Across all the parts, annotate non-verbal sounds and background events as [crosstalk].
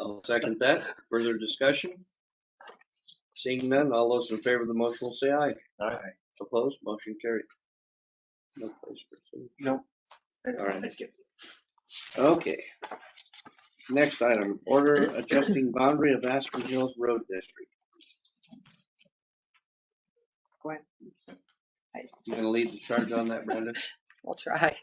I'll second that. Further discussion? Seeing none, all those in favor of the motion will say aye. Aye. Opposed, motion carried. No place for signature. No. All right. Okay. Next item, order adjusting boundary of Aspen Hills Road District. Go ahead. You gonna lead the charge on that, Brenda? We'll try.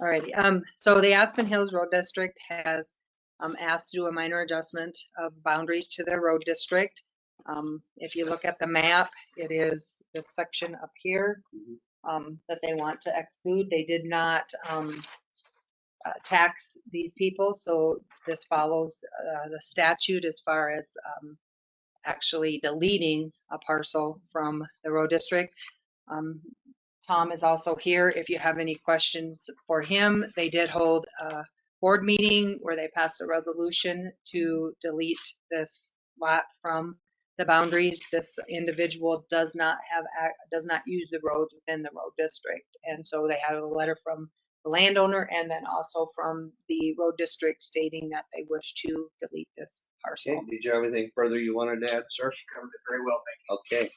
Alrighty, um, so the Aspen Hills Road District has, um, asked to do a minor adjustment of boundaries to their road district. Um, if you look at the map, it is this section up here, Mhm. um, that they want to exclude. They did not, um, uh, tax these people, so this follows, uh, the statute as far as, um, actually deleting a parcel from the road district. Um, Tom is also here if you have any questions for him. They did hold a board meeting where they passed a resolution to delete this lot from the boundaries. This individual does not have, ac- does not use the road within the road district. And so they had a letter from the landowner and then also from the road district stating that they wish to delete this Okay, parcel. did you have anything further you wanted to add, sir? Covered it very well, Okay,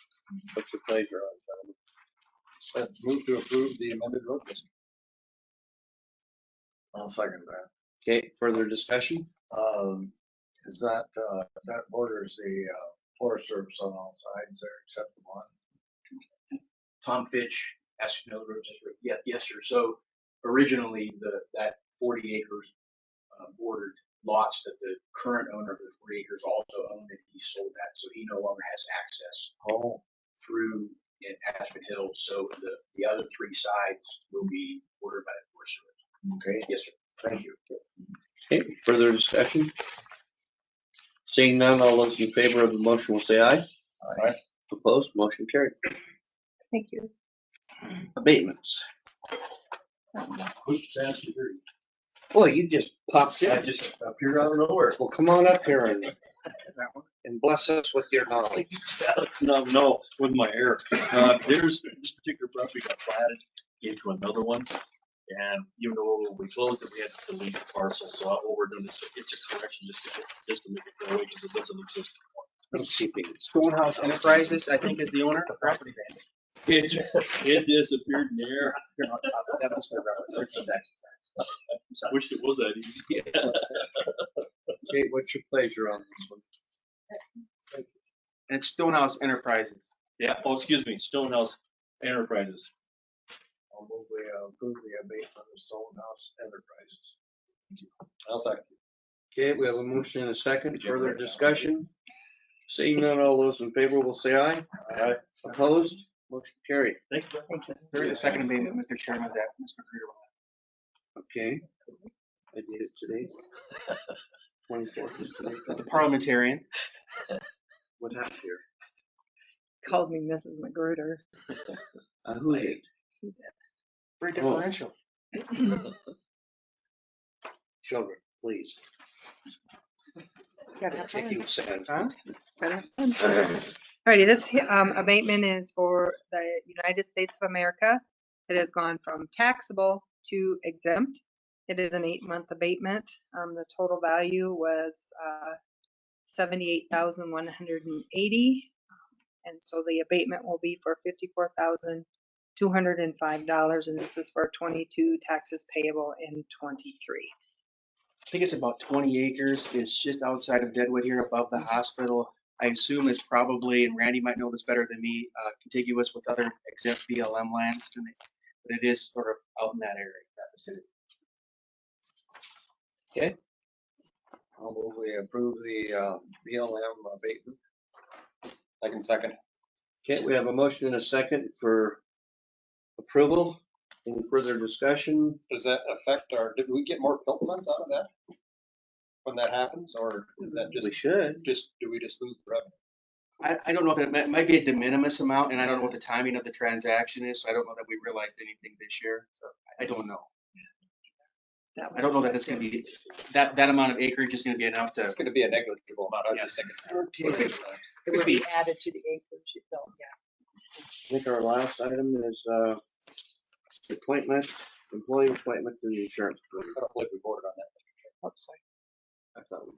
what's your pleasure on, gentlemen? Let's move to approve the amended road district. I'll second that. Okay, further discussion? Um, is that, uh, that borders the, uh, Forest Service on all sides there except the one? Tom Fitch, Aspen Hill Road District. Yeah, yes, sir. So originally, the, that forty acres uh, bordered lots that the current owner of the forty acres also owned, and he sold that, so he no longer has access Oh, through in Aspen Hill. So the, the other three sides will be ordered by the Forest Service. okay, Yes, sir. thank you. Okay, further discussion? Seeing none, all those in favor of the motion will say aye. All right. Opposed, motion carried. Thank you. Abatements. Quick, fast, and dirty. Boy, you just popped I in. just appeared out of nowhere. Well, come on up here and, and bless us with your knowledge. No, no, with my hair. Uh, There's, this particular property got platted into another one. And even though we closed it, we had to delete the parcel, so I overdone this. It's a correction just to, just to make it go away because it doesn't exist. Let's see if we can- Stonehouse Enterprises, I think, is the owner. Property It, it disappeared in the air. I wished it was that easy. [laughs] Okay, what's your pleasure on this one? It's Stonehouse Enterprises. Yeah, oh, excuse me, Stonehouse Enterprises. I'll move we uh, approve the abatement of Stonehouse Enterprises. I'll second. Okay, we have a motion and a second. Did you Further write it down? discussion? Seeing none, all those in favor will say aye. Aye. Opposed, motion carried. Thank you. There is a second amendment, Mr. Chairman, that Mr. Creer will Okay. I did it today. Twenty-fourth is today. have. The parliamentarian. What happened here? Called me Mrs. Magruder. Uh, who did? Very Oh. differential. Children, please. Gotta have fun. Taking sand. Huh? [laughs] Alrighty, this um, abatement is for the United States of America. It has gone from taxable to exempt. It is an eight-month abatement. Um, The total value was uh, 78,180. And so the abatement will be for $54,205, and this is for 22 taxes payable in '23. I think it's about twenty acres. It's just outside of Deadwood here above the hospital. I assume it's probably, and Randy might know this better than me, uh, contiguous with other exempt BLM lands, and it- but it is sort of out in that area, that vicinity. I'll move we approve the uh, BLM abatement. I can second. Okay, we have a motion and a second for approval. Any further discussion? Does that affect our, did we get more pilt funds out of that? When that happens, or is that We just, should. just, do we just lose the revenue? I, I don't know if it might, might be a de minimis amount, and I don't know what the timing of the transaction is, so I don't know that we realized anything this year, so I- I don't know. That I don't know that it's gonna be, that, that amount of acreage is gonna be enough to, It's gonna be a negligible amount, I was Yeah. just thinking. Okay. It Could would be be. added to the acreage itself, yeah. I think our last item is, uh, appointment, employee appointment to the insurance. company. I don't believe we voted on that. I thought we